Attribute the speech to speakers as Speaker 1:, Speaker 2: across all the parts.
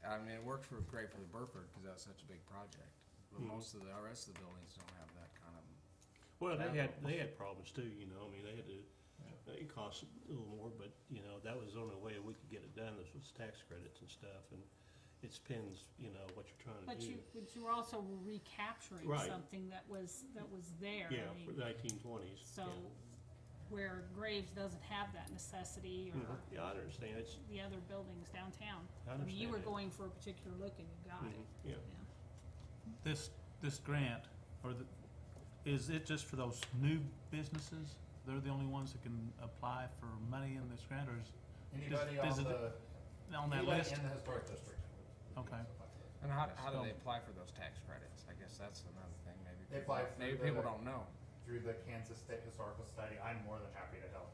Speaker 1: I mean, it worked for, great for the Burford, cause that was such a big project,
Speaker 2: Mm-hmm.
Speaker 1: but most of the, our rest of the buildings don't have that kind of,
Speaker 3: Well, they had,
Speaker 1: Capital.
Speaker 3: they had problems too, you know, I mean, they had to, it cost a little more, but, you know, that was the only way we could get it done, this was tax credits and stuff, and it depends, you know, what you're trying to
Speaker 4: But
Speaker 3: do.
Speaker 4: you, but you were also recapturing
Speaker 3: Right.
Speaker 4: something that was, that was there. I
Speaker 3: Yeah,
Speaker 4: mean,
Speaker 3: for the nineteen twenties.
Speaker 4: So where Graves doesn't have that necessity or
Speaker 3: Mm-hmm. Yeah, I understand, it's,
Speaker 4: the other buildings downtown.
Speaker 3: I
Speaker 4: mean, You
Speaker 3: understand
Speaker 4: were
Speaker 3: that.
Speaker 4: going for a particular look and you got it.
Speaker 3: mm-hmm. yeah,
Speaker 4: Yeah.
Speaker 5: This, this grant, or the, is it just for those new businesses? They're the only ones that can apply for money in this grant, or is,
Speaker 2: Anybody
Speaker 5: does it-
Speaker 2: on the,
Speaker 5: on that
Speaker 2: anybody
Speaker 5: list?
Speaker 2: in the historic district.
Speaker 5: Okay.
Speaker 1: and how, how do
Speaker 5: So-
Speaker 1: they apply for those tax credits? I guess that's another thing, maybe.
Speaker 2: They
Speaker 1: people-
Speaker 2: apply through
Speaker 1: Maybe
Speaker 2: the-
Speaker 1: people don't know.
Speaker 2: Through the Kansas State Historical Society, I'm more than happy to help,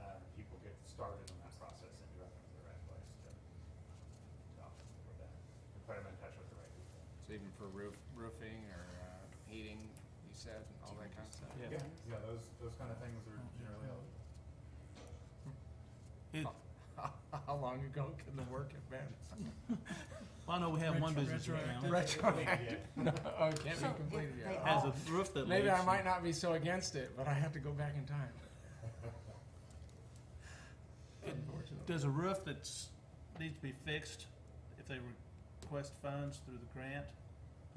Speaker 2: uh, people get started in that process and direct them to the right place to, to opt for that. And put them in touch with the right people.
Speaker 1: So even for roof, roofing or, uh, heating, you said, and all that kind of stuff?
Speaker 5: Yeah. Oh,
Speaker 2: Yeah, those, those kind of things are generally helpful.
Speaker 5: It,
Speaker 1: How, how long ago can the work have been?
Speaker 5: well, I know we have one business now,
Speaker 1: Retroactive? No, oh, it can't
Speaker 6: So
Speaker 1: be
Speaker 6: if
Speaker 1: completed
Speaker 6: they
Speaker 1: yet.
Speaker 5: has
Speaker 6: all-
Speaker 5: a roof that leaks.
Speaker 1: Maybe I
Speaker 5: and-
Speaker 1: might not be so against it, but I have to go back in time. Unfortunately.
Speaker 5: Does a roof that's, needs to be fixed, if they request funds through the grant,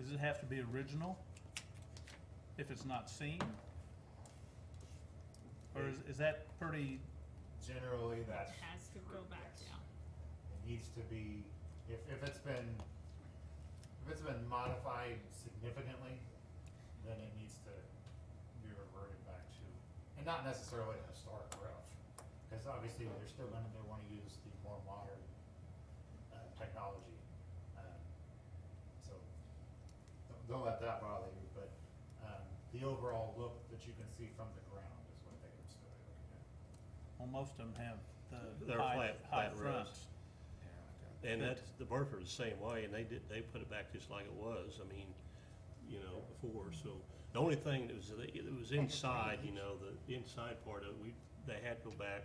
Speaker 5: does it have to be original? If it's not seen? Or is, is that pretty,
Speaker 2: Generally, that's.
Speaker 4: Has to go back
Speaker 2: Yes.
Speaker 4: down.
Speaker 2: It needs to be, if, if it's been, if it's been modified significantly, then it needs to be reverted back to, and not necessarily a historic route. Cause obviously, they're still gonna, they wanna use the more modern, uh, technology, um, so. don't- Don't let that bother you, but, um, the overall look that you can see from the ground is what they would still be looking at.
Speaker 5: well, most of them have the
Speaker 3: They're
Speaker 5: high,
Speaker 3: flat-
Speaker 5: high
Speaker 3: flat roofs.
Speaker 5: fronts.
Speaker 3: and that's, the Burford's the same way, and they did, they put it back just like it was, I mean, you know, before, so. The only thing that was, it was inside, you know, the, the inside part of it, we, they had to go back,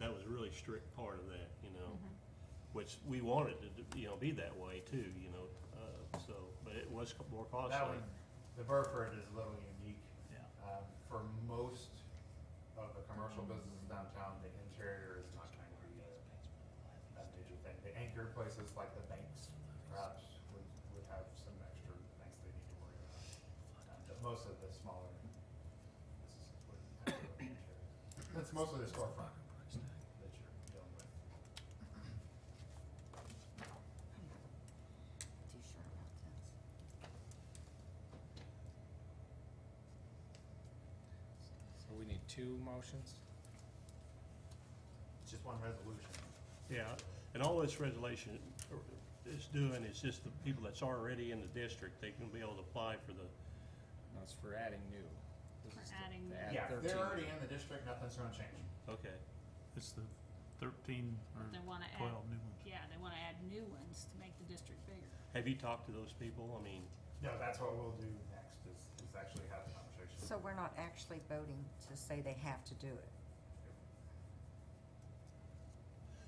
Speaker 3: that was a really strict part of that, you know? Which we wanted it to, you know, be that way too, you know, uh, so, but it was co- more costly.
Speaker 2: That one, the Burford is a little unique.
Speaker 5: Yeah.
Speaker 2: Um, for most of the commercial businesses downtown, the interior is not going to be a, a major thing. The anchor places like the banks perhaps would, would have some extra things they need to worry about. Um, But most of the smaller businesses wouldn't have to worry about interior. That's mostly the storefront that you're dealing with.
Speaker 6: Too sure about this.
Speaker 1: So we need two motions?
Speaker 2: It's just one resolution.
Speaker 3: Yeah, and all this resolution is doing is just the people that's already in the district, they can be able to apply for the,
Speaker 1: No, it's for adding new. This
Speaker 4: For
Speaker 1: is to-
Speaker 4: adding
Speaker 1: to
Speaker 4: new.
Speaker 1: add
Speaker 2: Yeah, if
Speaker 1: 13.
Speaker 2: they're already in the district, nothing's gonna change.
Speaker 3: okay.
Speaker 5: It's the thirteen or
Speaker 4: They wanna add,
Speaker 5: twelve new ones.
Speaker 4: yeah, they wanna add new ones to make the district bigger.
Speaker 3: Have you talked to those people? I mean,
Speaker 2: No, that's what we'll do next, is, is actually have a conversation.
Speaker 6: So we're not actually voting to say they have to do it.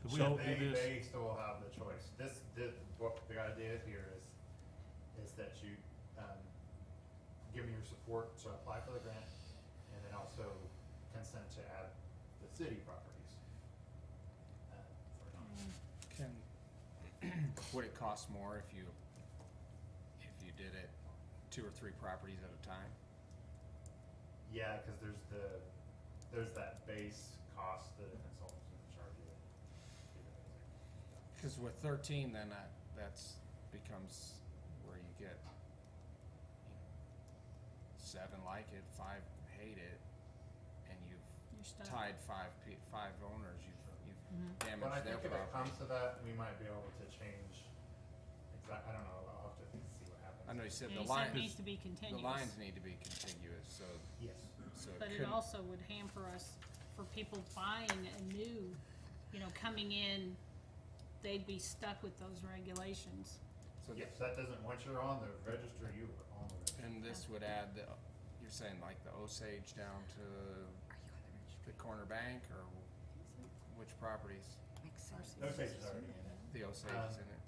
Speaker 5: Do we
Speaker 3: So
Speaker 5: have to
Speaker 2: They,
Speaker 5: do this?
Speaker 2: they still have the choice. This, this, what the idea here is, is that you, um, give me your support to apply for the grant, and then also consent to add the city properties. uh, for non-
Speaker 1: Can, would it cost more if you, if you did it two or three properties at a time?
Speaker 2: Yeah, cause there's the, there's that base cost that a consultant's gonna charge you.
Speaker 1: Cause with thirteen, then that, that's becomes where you get you know, seven like it, five hate it, and you've
Speaker 4: You're stuck.
Speaker 1: tied five pe- five owners, you've, you've
Speaker 4: Mm-hmm.
Speaker 2: When
Speaker 1: damaged their
Speaker 2: I think if it
Speaker 1: property.
Speaker 2: comes to that, we might be able to change, exact, I don't know, I'll have to see what happens.
Speaker 1: I know you said the
Speaker 4: Yeah, you said it
Speaker 1: lines,
Speaker 4: needs to be
Speaker 1: the
Speaker 4: continuous.
Speaker 1: lines need to be contiguous, so,
Speaker 2: Yes.
Speaker 1: so
Speaker 4: But
Speaker 1: it
Speaker 4: it
Speaker 1: couldn't,
Speaker 4: also would hamper us for people buying a new, you know, coming in, they'd be stuck with those regulations.
Speaker 1: so
Speaker 2: Yes, that doesn't, once you're on the register, you are on the register.
Speaker 1: And this would add the, you're saying like the Osage down to
Speaker 6: Are you on the
Speaker 1: the
Speaker 6: registry?
Speaker 1: corner bank or which properties?
Speaker 6: Makes sense.
Speaker 2: Those pages are already in it.
Speaker 1: The Osage
Speaker 2: Um,
Speaker 1: is in it.